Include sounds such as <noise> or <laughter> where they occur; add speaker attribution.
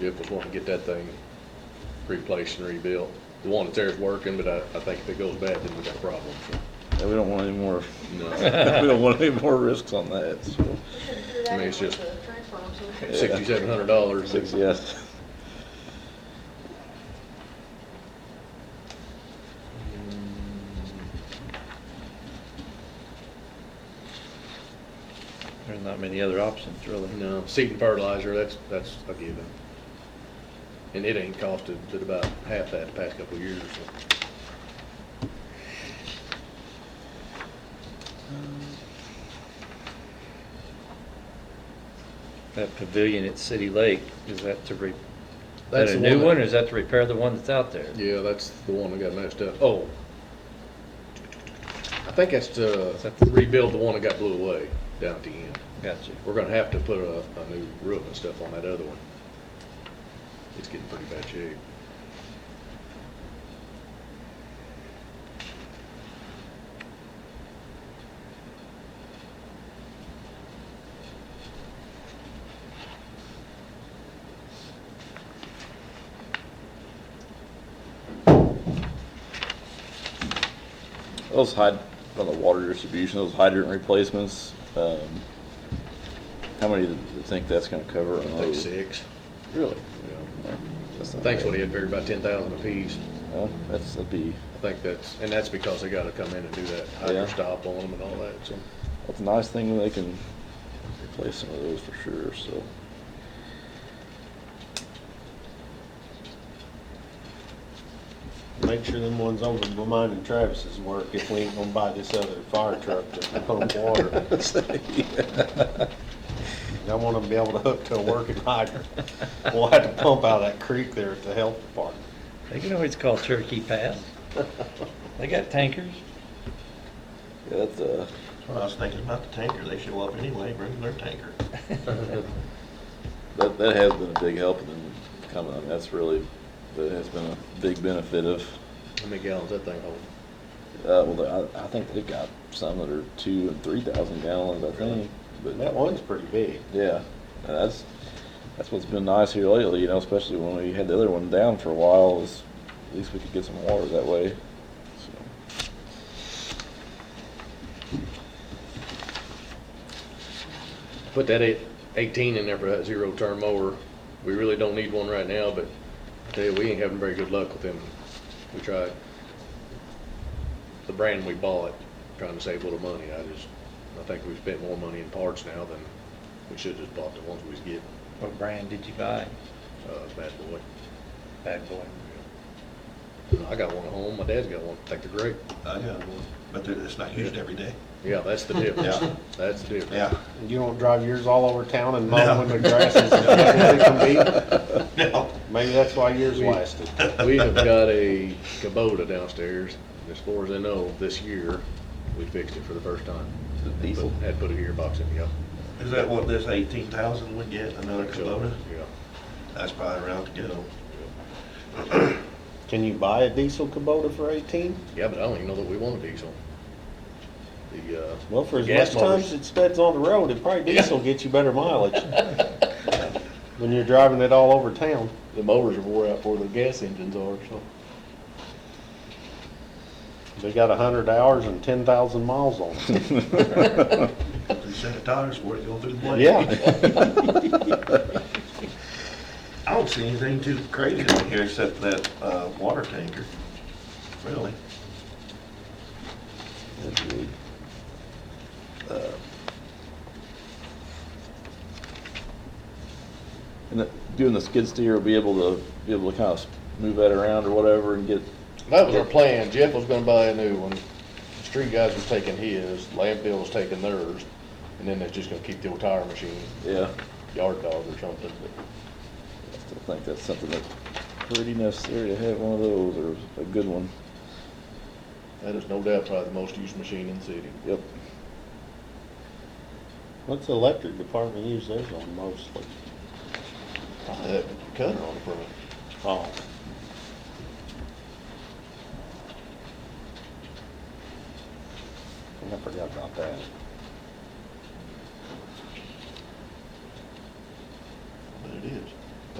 Speaker 1: Jeff was wanting to get that thing replaced and rebuilt. The one that's there is working, but I, I think if it goes bad, then we got problems.
Speaker 2: Yeah, we don't want any more, <laughs>
Speaker 1: No,
Speaker 2: we don't want any more risks on that, so,
Speaker 1: I mean, it's just-
Speaker 2: Yeah.
Speaker 1: <laughs> sixty-seven hundred dollars.
Speaker 2: six, yes.
Speaker 3: There's not many other options, really.
Speaker 1: No, seed and fertilizer, that's, that's a given. And it ain't costed but about half that the past couple of years. so.
Speaker 3: That pavilion at City Lake, is that to re, that
Speaker 1: That's
Speaker 3: a
Speaker 1: the
Speaker 3: new
Speaker 1: that-
Speaker 3: one, or is that to repair the one that's out there?
Speaker 1: Yeah, that's the one that got messed up. Oh. I think that's to
Speaker 3: Is that the-
Speaker 1: rebuild the one that got blew away down at the end.
Speaker 3: Gotcha.
Speaker 1: We're gonna have to put a, a new roof and stuff on that other one. It's getting pretty bad shape.
Speaker 2: Those hyd, on the water distribution, those hydrant replacements, um, how many do you think that's gonna cover?
Speaker 1: I think six.
Speaker 2: Really?
Speaker 1: yeah.
Speaker 2: That's
Speaker 1: I
Speaker 2: not
Speaker 1: think
Speaker 2: bad.
Speaker 1: what he had figured about ten thousand apiece.
Speaker 2: Well, that's, that'd be,
Speaker 1: I think that's, and that's because they gotta come in and do that
Speaker 2: Yeah.
Speaker 1: hydrant stop on them and all that, so.
Speaker 2: that's a nice thing when they can replace some of those for sure, so.
Speaker 4: Make sure them ones over reminding Travis's work if we ain't gonna buy this other fire truck to pump
Speaker 2: <laughs>
Speaker 4: water. I wanna be able to hook to a working hydrant. We'll have to pump out of that creek there at the health department.
Speaker 3: They can always call Turkey Pass. They got tankers.
Speaker 2: Yeah, that's, uh,
Speaker 5: That's what I was thinking about the tanker, they show up anyway, bring their tanker.
Speaker 2: that, that has been a big help in them coming, I mean, that's really, that has been a big benefit of,
Speaker 1: How many gallons that thing hold?
Speaker 2: uh, well, I, I think they've got some that are two and three thousand gallons, I think, but.
Speaker 4: And that one's pretty big.
Speaker 2: Yeah, and that's, that's what's been nice here lately, you know, especially when we had the other one down for a while, is at least we could get some water that way. So,
Speaker 1: Put that eight- eighteen in there for that zero turn mower. We really don't need one right now, but I tell you, we ain't having very good luck with them. We tried. The brand we bought, trying to save a little money, I just, I think we've spent more money in parts now than we should've just bought the ones we was getting,
Speaker 3: What brand did you buy?
Speaker 1: uh, bad boy.
Speaker 3: Bad boy.
Speaker 1: I got one at home, my dad's got one, I think they're great.
Speaker 5: I got one, but they're- it's not used every day.
Speaker 1: Yeah, that's the difference.
Speaker 5: Yeah.
Speaker 1: That's the difference.
Speaker 4: You don't drive yours all over town and mow
Speaker 5: No.
Speaker 4: when the grass is, it can
Speaker 5: <laughs> No.
Speaker 4: be. Maybe that's why yours lasted.
Speaker 1: <laughs> We have got a Kubota downstairs, and as far as I know, this year, we fixed it for the first time.
Speaker 2: the diesel,
Speaker 1: Put- Had put a gearbox in, yeah.
Speaker 5: Is that what this eighteen thousand would get, another Kubota?
Speaker 1: Yeah.
Speaker 5: That's probably around to go.
Speaker 4: Can you buy a diesel Kubota for eighteen?
Speaker 1: Yeah, but I don't even know that we want a diesel. The, uh,
Speaker 4: Well, for as
Speaker 1: Gas
Speaker 4: much
Speaker 1: motors.
Speaker 4: times it spends on the road, it probably diesel gets you better mileage. <laughs> When you're driving it all over town.
Speaker 6: The motors are wore out before the gas engines are, so.
Speaker 4: They got a hundred hours and ten thousand miles on it.
Speaker 5: Three set of tires for it going through the blade.
Speaker 4: <laughs> Yeah,
Speaker 5: I don't see anything too crazy in here except that, uh, water tanker, really.
Speaker 2: that's really, uh, and the- doing the skid steer, will be able to, be able to kind of move that around or whatever and get,
Speaker 1: that was our plan. Jeff was gonna buy a new one. The Street guys was taking his, landfill was taking theirs, and then they're just gonna keep the old tire machine,
Speaker 2: yeah.
Speaker 1: yard dog or something, but.
Speaker 2: I still think that's something that's pretty necessary to have one of those, or a good one,
Speaker 1: That is no doubt probably the most used machine in the city.
Speaker 2: yep.
Speaker 4: what's the electric department use theirs on mostly?
Speaker 1: Uh, That cutter on the front.
Speaker 4: Oh, I forgot about that.